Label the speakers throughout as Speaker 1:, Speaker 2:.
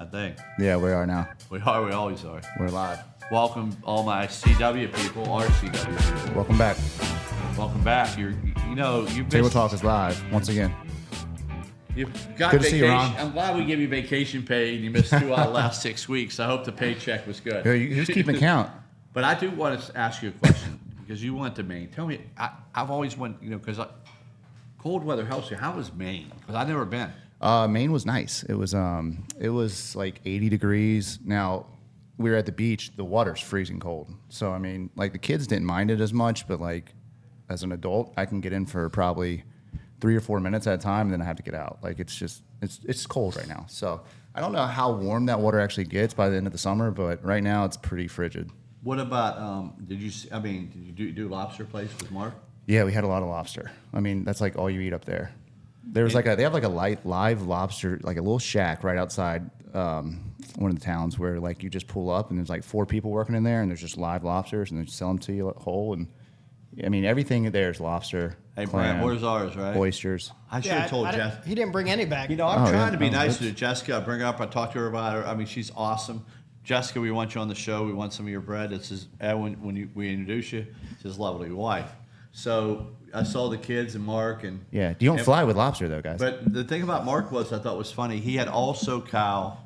Speaker 1: I think
Speaker 2: Yeah, we are now.
Speaker 1: we are. We always are.
Speaker 2: We're live.
Speaker 1: Welcome, all my CW people, RCW people.
Speaker 2: Welcome back.
Speaker 1: Welcome back. You're, you know, you've been,
Speaker 2: Table Talk is live once again.
Speaker 1: You've got
Speaker 2: Good to see
Speaker 1: vacation.
Speaker 2: you, Ron.
Speaker 1: I'm glad we gave you vacation pay, and you missed two out of the last six weeks. I hope the paycheck was good.
Speaker 2: Yo, you- Who's keeping count?
Speaker 1: But I do want to ask you a question because you went to Maine. Tell me, I, I've always went, you know, because cold weather helps you. How was Maine? Because I've never been.
Speaker 2: Uh, Maine was nice. It was um, it was like 80 degrees. Now we were at the beach. The water's freezing cold. So I mean, like the kids didn't mind it as much, but like as an adult, I can get in for probably three or four minutes at a time, and then I have to get out. Like it's just it's it's cold right now. So I don't know how warm that water actually gets by the end of the summer, but right now it's pretty frigid.
Speaker 1: What about? Um, did you? s- I mean, did you do, do lobster place with Mark?
Speaker 2: Yeah, we had a lot of lobster. I mean, that's like all you eat up there. There was like a they have like a light live lobster like a little shack right outside um, one of the towns where like you just pull up and there's like four people working in there and there's just live lobsters and they sell them to you whole and I mean everything there is lobster,
Speaker 1: Hey,
Speaker 2: clam,
Speaker 1: Brad, where's ours, right?
Speaker 2: oysters.
Speaker 1: I should
Speaker 3: Yeah,
Speaker 1: have told
Speaker 3: I- I
Speaker 1: Jeff.
Speaker 3: didn't- He didn't bring any back.
Speaker 1: You know, I'm
Speaker 2: Oh,
Speaker 1: trying
Speaker 2: yeah.
Speaker 1: to be
Speaker 2: Oh,
Speaker 1: nice
Speaker 2: that's-
Speaker 1: to Jessica. I bring her up. I talk to her about her. I mean, she's awesome. Jessica, we want you on the show. We want some of your bread. It's his, and when, when you, we introduce you, it's his lovely wife. So I saw the kids and Mark and
Speaker 2: Yeah, you don't
Speaker 1: and-
Speaker 2: fly with lobster though, guys.
Speaker 1: But the thing about Mark was I thought was funny. He had all SoCal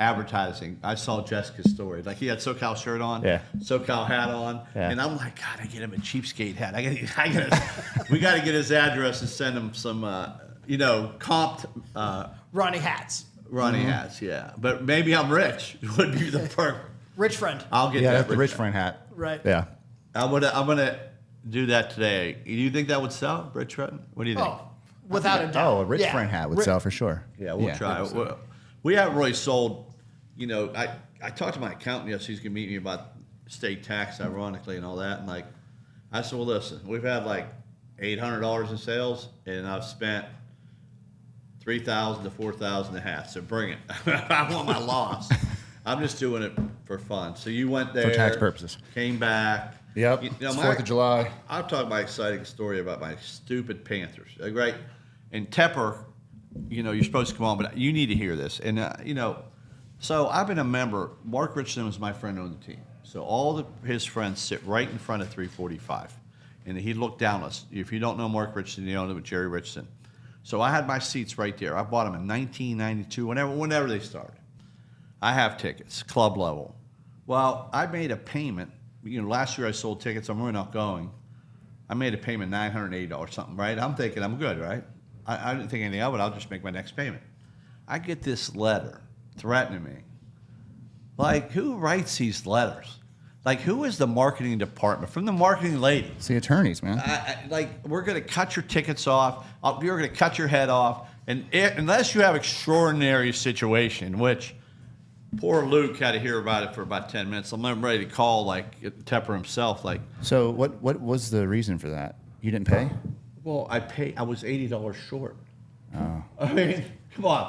Speaker 1: advertising. I saw Jessica's story. Like he had SoCal shirt on,
Speaker 2: Yeah.
Speaker 1: SoCal hat on,
Speaker 2: Yeah.
Speaker 1: and I'm like, God, I get him a cheapskate hat. I got, I got, we got to get his address and send him some, uh, you know, comped. Uh,
Speaker 3: Ronnie Hats.
Speaker 1: Ronnie
Speaker 2: Mm-hmm.
Speaker 1: hats, yeah. But maybe I'm rich. Would be the perfect.
Speaker 3: Rich friend.
Speaker 1: I'll get
Speaker 2: yeah,
Speaker 1: that.
Speaker 2: that's the rich
Speaker 1: hat.
Speaker 2: friend hat.
Speaker 3: Right.
Speaker 2: Yeah.
Speaker 1: I'm gonna I'm gonna do that today. Do you think that would sell, Rich Trenton? What do you think?
Speaker 3: Oh, without a doubt.
Speaker 2: Oh, a rich
Speaker 3: Yeah.
Speaker 2: friend hat would
Speaker 3: Ri-
Speaker 2: sell for sure.
Speaker 1: Yeah, we'll try. We, we haven't really sold. You know, I I talked to my accountant yesterday. He's gonna meet me about state tax, ironically, and all that. And like, I said, well, listen, we've had like eight hundred dollars in sales, and I've spent. Three thousand to four thousand a hat, so bring it. I want my loss. I'm just doing it for fun. So you went there
Speaker 2: tax purposes.
Speaker 1: came back.
Speaker 2: Yep.
Speaker 1: You know,
Speaker 2: it's
Speaker 1: my-
Speaker 2: Fourth of July.
Speaker 1: I'll talk my exciting story about my stupid Panthers. Like, right? And Tepper, you know, you're supposed to come on, but you need to hear this. And, uh, you know, so I've been a member. Mark Richardson was my friend on the team. So all the, his friends sit right in front of 345. And he looked down us. If you don't know Mark Richardson, you don't know Jerry Richardson. So I had my seats right there. I bought them in 1992, whenever, whenever they started. I have tickets, club level. Well, I made a payment. You know, last year I sold tickets. I'm really not going. I made a payment nine hundred eighty dollars something, right? I'm thinking I'm good, right? I, I didn't think anything of it. I'll just make my next payment. I get this letter threatening me. Like, who writes these letters? Like, who is the marketing department from the marketing lady?
Speaker 2: It's the attorneys, man.
Speaker 1: I, I, like we're going to cut your tickets off. Uh, You're going to cut your head off, and it, unless you have extraordinary situation, which poor Luke had to hear about it for about ten minutes. I'm not ready to call like Tepper himself. Like,
Speaker 2: So what what was the reason for that? You didn't pay?
Speaker 1: well, I pay. I was eighty dollars short.
Speaker 2: Oh.
Speaker 1: I mean, come on.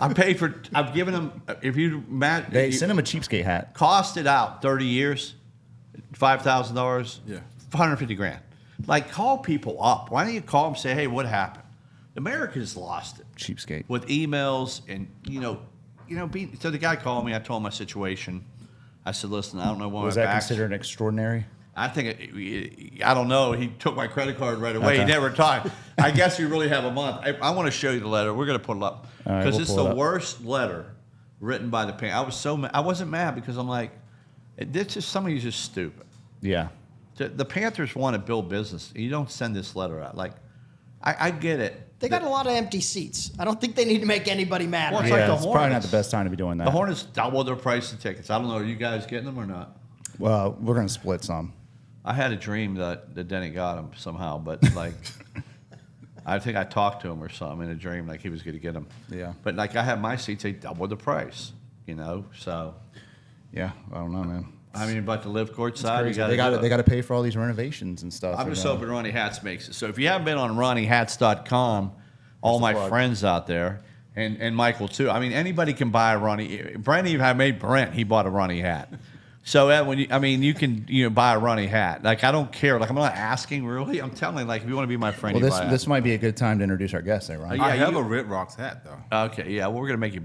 Speaker 1: I paid for. I've given him. If you Matt,
Speaker 2: They
Speaker 1: you-
Speaker 2: sent him a cheapskate hat.
Speaker 1: cost it out 30 years, $5,000,
Speaker 4: Yeah.
Speaker 1: 150 grand. Like, call people up. Why don't you call them say, hey, what happened? America's lost it
Speaker 2: Cheapskate.
Speaker 1: with emails and, you know, you know, being, so the guy called me. I told him my situation. I said, listen, I don't know why
Speaker 2: Was
Speaker 1: my
Speaker 2: that
Speaker 1: back's-
Speaker 2: considered an extraordinary?
Speaker 1: I think it, I don't know. He took my credit card right away. He
Speaker 2: Okay.
Speaker 1: never talked. I guess we really have a month. I, I want to show you the letter. We're going to put it up because
Speaker 2: All right, we'll
Speaker 1: it's
Speaker 2: pull
Speaker 1: the
Speaker 2: it up.
Speaker 1: worst letter written by the parent. I was so mad. I wasn't mad because I'm like, this is some of you just stupid.
Speaker 2: Yeah.
Speaker 1: The, the Panthers want to build business. You don't send this letter out. Like, I, I get it.
Speaker 3: They got a lot of empty seats. I don't think they need to make anybody mad.
Speaker 1: Well,
Speaker 3: right
Speaker 1: It's like
Speaker 2: yeah,
Speaker 1: the
Speaker 2: it's probably not
Speaker 1: Hornets.
Speaker 2: the best time to be doing that.
Speaker 1: The Hornets double their price of tickets. I don't know. Are you guys getting them or not?
Speaker 2: Well, we're gonna split some.
Speaker 1: I had a dream that, that Denny got him somehow, but like, I think I talked to him or something in a dream, like he was going to get him.
Speaker 2: Yeah.
Speaker 1: But like, I had my seats, they doubled the price, you know? So,
Speaker 2: Yeah, I don't know, man.
Speaker 1: I mean, but the live court
Speaker 2: It's
Speaker 1: side, Uh, you
Speaker 2: crazy.
Speaker 1: gotta
Speaker 2: they
Speaker 1: do
Speaker 2: got to
Speaker 1: it.
Speaker 2: they got to pay for all these renovations and stuff.
Speaker 1: I'm
Speaker 2: They
Speaker 1: just
Speaker 2: gotta-
Speaker 1: hoping Ronnie Hats makes it. So if you haven't been on RonnieHats.com, all my
Speaker 2: plug.
Speaker 1: friends out there, and, and Michael too. I mean, anybody can buy a Ronnie. Brent even I made Brent. He bought a Ronnie hat. So uh, when you, I mean, you can you know buy a Ronnie hat. Like I don't care. Like I'm not asking really. I'm telling. Like if you want to be my friend,
Speaker 2: Well,
Speaker 1: you
Speaker 2: this
Speaker 1: buy a-
Speaker 2: this might be a good time to introduce our guest, there,
Speaker 1: Uh,
Speaker 2: Ron.
Speaker 1: yeah,
Speaker 4: I have
Speaker 1: you-
Speaker 4: a Red Rocks hat though.
Speaker 1: Okay, yeah, well, we're gonna make you